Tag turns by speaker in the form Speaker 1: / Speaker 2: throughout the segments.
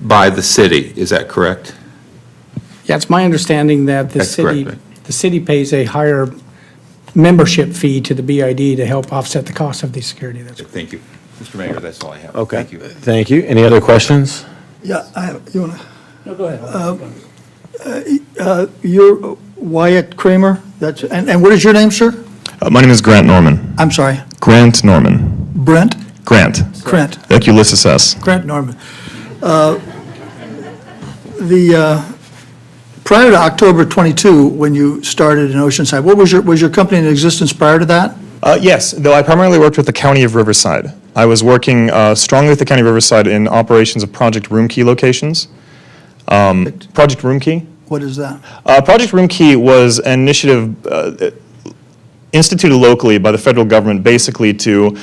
Speaker 1: by the city, is that correct?
Speaker 2: Yeah, it's my understanding that the
Speaker 1: That's correct,
Speaker 2: city,
Speaker 1: right?
Speaker 2: the city pays a higher membership fee to the BID to help offset the cost of the security. That's
Speaker 1: Thank you. Mr. Mayor, that's all I have.
Speaker 3: Okay.
Speaker 1: Thank you.
Speaker 3: Thank you. Any other questions?
Speaker 4: Yeah, I have, you wanna? Um, uh, No, go ahead. You're Wyatt Kramer, that's, and, and what is your name, sir?
Speaker 5: Uh, My name is Grant Norman.
Speaker 4: I'm sorry,
Speaker 5: Grant Norman.
Speaker 4: Brent,
Speaker 5: Grant.
Speaker 4: Grant,
Speaker 5: Like Ulysses S.
Speaker 4: Grant Norman. Uh, The, uh, prior to October 22, when you started in Oceanside, what was your, was your company in existence prior to that?
Speaker 5: Uh, yes, though I primarily worked with the County of Riverside. I was working uh, strongly with the County of Riverside in operations of Project Room Key locations. Um, Project Room Key?
Speaker 4: What is that?
Speaker 5: Uh, Project Room Key was an initiative uh, instituted locally by the federal government basically to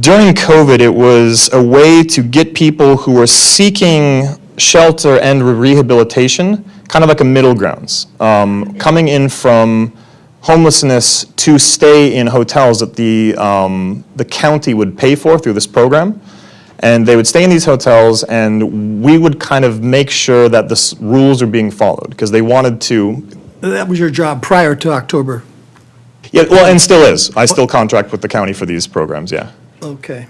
Speaker 5: during COVID, it was a way to get people who were seeking shelter and rehabilitation, kind of like a middle grounds, um, coming in from homelessness to stay in hotels that the, um, the county would pay for through this program. And they would stay in these hotels, and we would kind of make sure that the s- rules are being followed because they wanted to.
Speaker 4: That was your job prior to October,
Speaker 5: Yeah, well, and still is. I still contract with the county for these programs, yeah.
Speaker 4: Okay,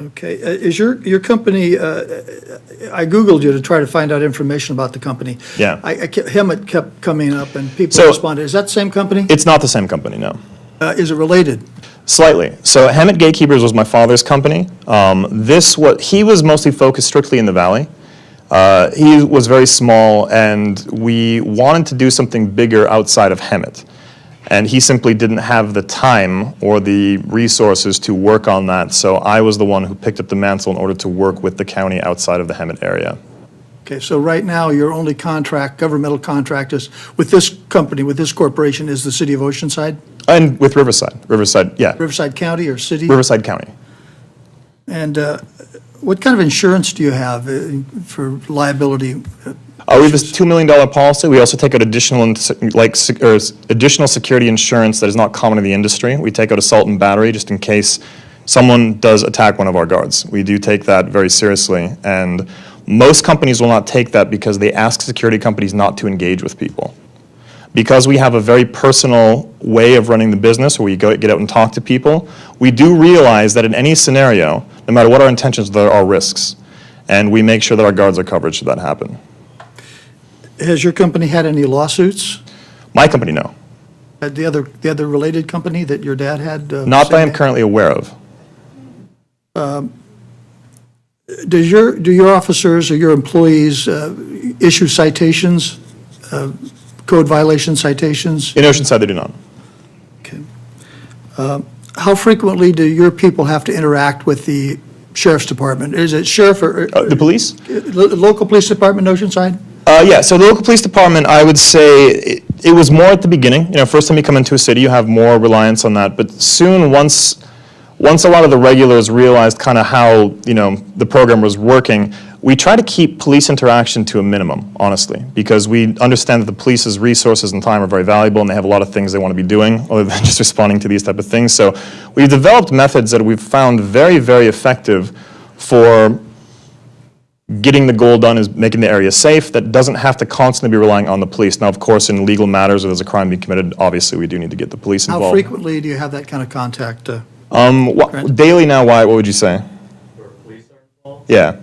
Speaker 4: okay. Uh, Is your, your company, uh, I Googled you to try to find out information about the company.
Speaker 5: Yeah.
Speaker 4: I, I kept, Hemet kept coming up and people
Speaker 5: So-
Speaker 4: responded. Is that the same company?
Speaker 5: It's not the same company, no.
Speaker 4: Uh, Is it related?
Speaker 5: Slightly. So Hammett Gatekeepers was my father's company. Um, this was he was mostly focused strictly in the valley. Uh, he was very small, and we wanted to do something bigger outside of Hemet. And he simply didn't have the time or the resources to work on that. So I was the one who picked up the mantle in order to work with the county outside of the Hemet area.
Speaker 4: Okay, so right now, your only contract, governmental contract is, with this company, with this corporation, is the city of Oceanside,
Speaker 5: And with Riverside. Riverside, yeah.
Speaker 4: Riverside County or city?
Speaker 5: Riverside County.
Speaker 4: And uh, what kind of insurance do you have uh, for liability?
Speaker 5: Uh, we have this $2 million policy. We also take out additional, ins- like, sec- or s- additional security insurance that is not common in the industry. We take out assault and battery just in case someone does attack one of our guards. We do take that very seriously. And most companies will not take that because they ask security companies not to engage with people. Because we have a very personal way of running the business where we go, get out and talk to people, we do realize that in any scenario, no matter what our intentions, there are risks. And we make sure that our guards are covered should that happen.
Speaker 4: Has your company had any lawsuits?
Speaker 5: My company, no.
Speaker 4: Uh, The other, the other related company that your dad had? uh,
Speaker 5: Not that
Speaker 4: same
Speaker 5: I'm currently aware of.
Speaker 4: Does your, do your officers or your employees uh, issue citations, uh, code violation citations?
Speaker 5: In Oceanside, they do not.
Speaker 4: Okay. Um, How frequently do your people have to interact with the sheriff's department? Is it sheriff or?
Speaker 5: Uh, the police?
Speaker 4: Lo- Local police department, in Oceanside?
Speaker 5: Uh, yeah, so the local police department, I would say it, it was more at the beginning. You know, first time you come into a city, you have more reliance on that. But soon, once, once a lot of the regulars realized kind of how you know the program was working, we try to keep police interaction to a minimum, honestly, because we understand that the police's resources and time are very valuable, and they have a lot of things they want to be doing other than just responding to these type of things. So we've developed methods that we've found very, very effective for getting the goal done is making the area safe. That doesn't have to constantly be relying on the police. Now, of course, in legal matters or there's a crime being committed, obviously we do need to get the police involved.
Speaker 4: How frequently do you have that kind of contact? uh,
Speaker 5: Um, wha- daily now, why? What would you say?
Speaker 6: where police are involved,
Speaker 5: Yeah.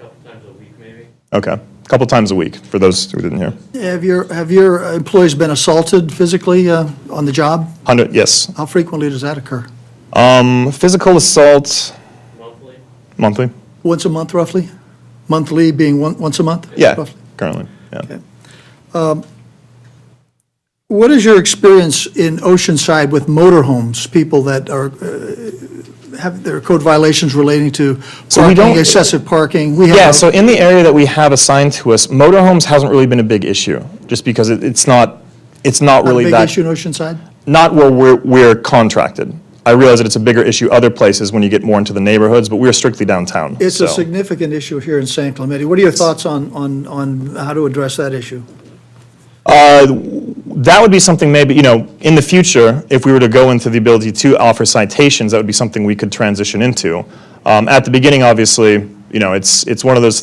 Speaker 6: a couple times a week maybe.
Speaker 5: Okay. A couple times a week for those who didn't hear.
Speaker 4: Have your, have your employees been assaulted physically uh, on the job?
Speaker 5: Hundred. Yes.
Speaker 4: How frequently does that occur?
Speaker 5: Um, physical assault
Speaker 6: Monthly,
Speaker 5: monthly.
Speaker 4: Once a month roughly? Monthly being one- once a month?
Speaker 5: Yeah.
Speaker 4: roughly?
Speaker 5: Currently. Yeah.
Speaker 4: What is your experience in Oceanside with motorhomes, people that are, uh, have their code violations relating to
Speaker 5: So we
Speaker 4: parking,
Speaker 5: don't-
Speaker 4: excessive parking? We have
Speaker 5: Yeah,
Speaker 4: a-
Speaker 5: so in the area that we have assigned to us, motorhomes hasn't really been a big issue, just because it, it's not, it's not
Speaker 4: Not a
Speaker 5: really
Speaker 4: big
Speaker 5: that.
Speaker 4: issue in Oceanside?
Speaker 5: not where we're, we're contracted. I realize that it's a bigger issue other places when you get more into the neighborhoods, but we're strictly downtown.
Speaker 4: It's a
Speaker 5: so.
Speaker 4: significant issue here in San Clemente. What are your thoughts on, on, on how to address that issue?
Speaker 5: That would be something maybe, you know, in the future, if we were to go into the ability to offer citations, that would be something we could transition into. Um, at the beginning, obviously, you know, it's, it's one of those